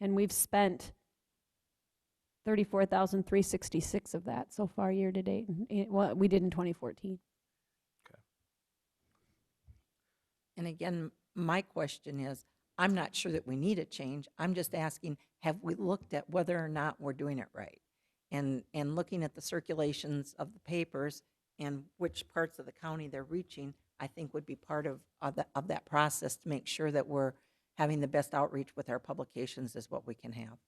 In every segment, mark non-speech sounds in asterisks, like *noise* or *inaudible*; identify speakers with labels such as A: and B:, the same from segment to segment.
A: And we've spent 34,366 of that so far year-to-date, and it- what we did in 2014.
B: And again, my question is, I'm not sure that we need a change. I'm just asking, have we looked at whether or not we're doing it right? And, and looking at the circulations of the papers and which parts of the county they're reaching, I think would be part of, of the- of that process to make sure that we're having the best outreach with our publications is what we can have.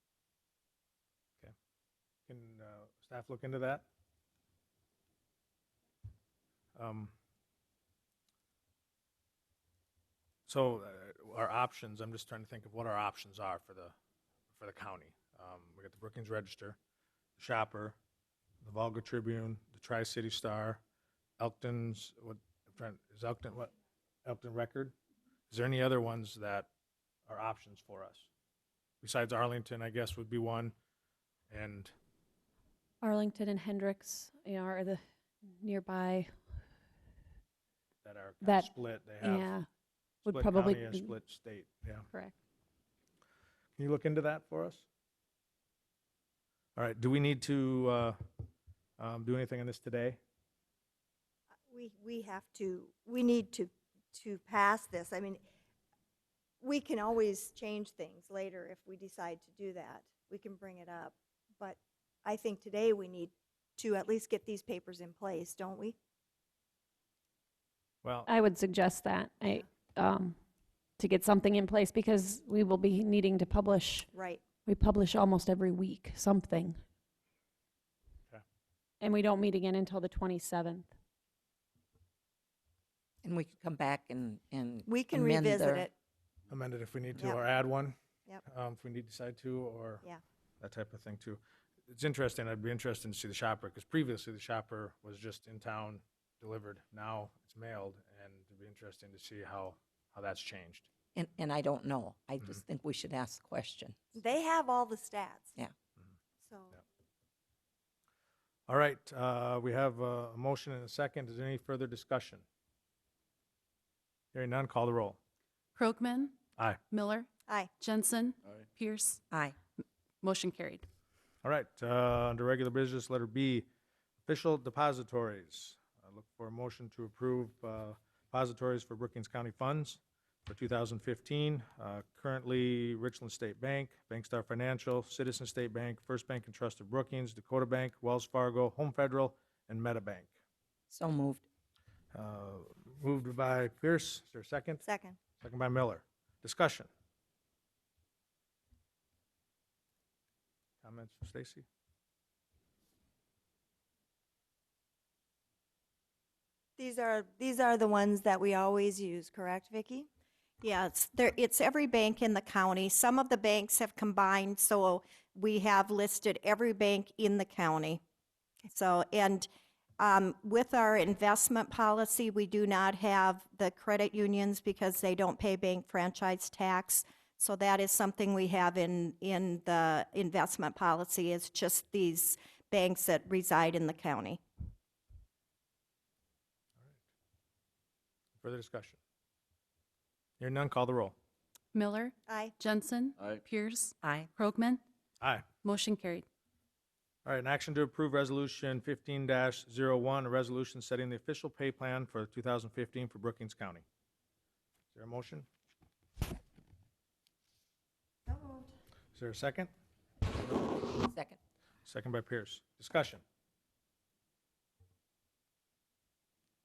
C: Can uh, staff look into that? Um, So uh, our options, I'm just trying to think of what our options are for the, for the county. Um, We got the Brookings Register, the Shopper, the Volga Tribune, the Tri-City Star, Elkton's, what, I'm trying, is Elkton, what, Elkton Record? Is there any other ones that are options for us? Besides Arlington, I guess, would be one, and
A: Arlington and Hendricks you know, are the nearby,
C: that are kind
A: That-
C: of split. They have
A: yeah, would
C: split
A: probably
C: county and
A: be-
C: split state. Yeah.
A: correct.
C: Can you look into that for us? All right. Do we need to uh, um, do anything on this today?
D: we, we have to, we need to, to pass this. I mean, we can always change things later if we decide to do that. We can bring it up. But I think today we need to at least get these papers in place, don't we?
C: Well,
A: I would suggest that, I, um, to get something in place, because we will be needing to publish,
D: Right.
A: we publish almost every week, something.
C: Okay.
A: And we don't meet again until the 27th.
B: And we could come back and, and.
D: We can
B: amend
D: revisit
B: their-
D: it.
C: amend it if we need to,
D: Yep.
C: or add one.
D: Yep.
C: Um, if we need to decide to, or
D: Yeah.
C: that type of thing too. It's interesting. I'd be interested to see the shopper because previously the shopper was just in town delivered. Now it's mailed, and it'd be interesting to see how how that's changed.
B: And, and I don't know. I just think we should ask the question.
D: They have all the stats.
B: Yeah.
D: So
C: All right, uh, we have a a motion and a second. Is there any further discussion? Hearing none, call the roll.
E: Krogman,
C: Aye.
E: Miller,
D: Aye.
E: Jensen, Pierce,
B: Aye.
E: motion carried.
C: All right, uh, under regular business, letter B, official depositories. I look for a motion to approve uh, depositories for Brookings County funds for 2015. Uh, Currently, Richland State Bank, Bankstar Financial, Citizen State Bank, First Bank and Trust of Brookings, Dakota Bank, Wells Fargo, Home Federal, and MetaBank.
B: So moved.
C: Uh, Moved by Pierce, is there a second?
D: second.
C: Second by Miller. Discussion. Comments from Stacy?
D: These are, these are the ones that we always use, correct, Vicki?
F: Yeah, it's there, it's every bank in the county. Some of the banks have combined, so we have listed every bank in the county. So, and um, with our investment policy, we do not have the credit unions because they don't pay bank franchise tax. So that is something we have in, in the investment policy is just these banks that reside in the county.
C: Further discussion? Hearing none, call the roll.
E: Miller,
D: Aye.
E: Jensen,
G: Aye.
E: Pierce,
B: Aye.
E: Krogman,
C: Aye.
E: motion carried.
C: All right, an action to approve Resolution 15-01, a resolution setting the official pay plan for 2015 for Brookings County. Is there a motion? Is there a second?
B: Second.
C: Second by Pierce. Discussion.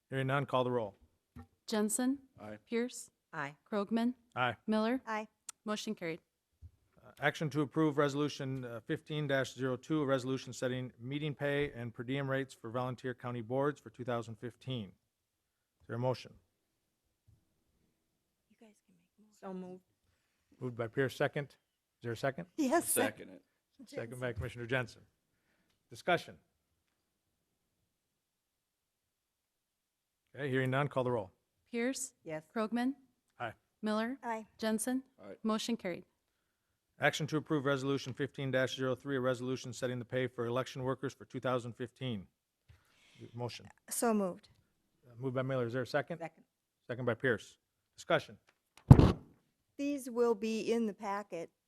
C: Hearing none, call the roll.
E: Jensen,
G: Aye.
E: Pierce,
B: Aye.
E: Krogman,
C: Aye.
E: Miller,
D: Aye. *laughs*
E: motion carried.
C: Uh, Action to approve Resolution uh, fifteen 2 a resolution setting meeting pay and per diem rates for volunteer county boards for two thousand fifteen. Is there a motion?
B: So moved.
C: Moved by Pierce, second. Is there a second?
D: Yes.
G: Second it.
C: Second by Commissioner Jensen. Discussion. Okay, hearing none, call the roll.
E: Pierce,
B: Yes.
E: Krogman,
C: Aye.
E: Miller,
D: Aye.
E: Jensen,
G: Aye.
E: motion carried.
C: Action to approve Resolution fifteen 3 a resolution setting the pay for election workers for two thousand fifteen. Motion.
D: So moved.
C: Uh, Moved by Miller. Is there a second?
B: Second.
C: Second by Pierce. Discussion.
D: These will be in the packet uh,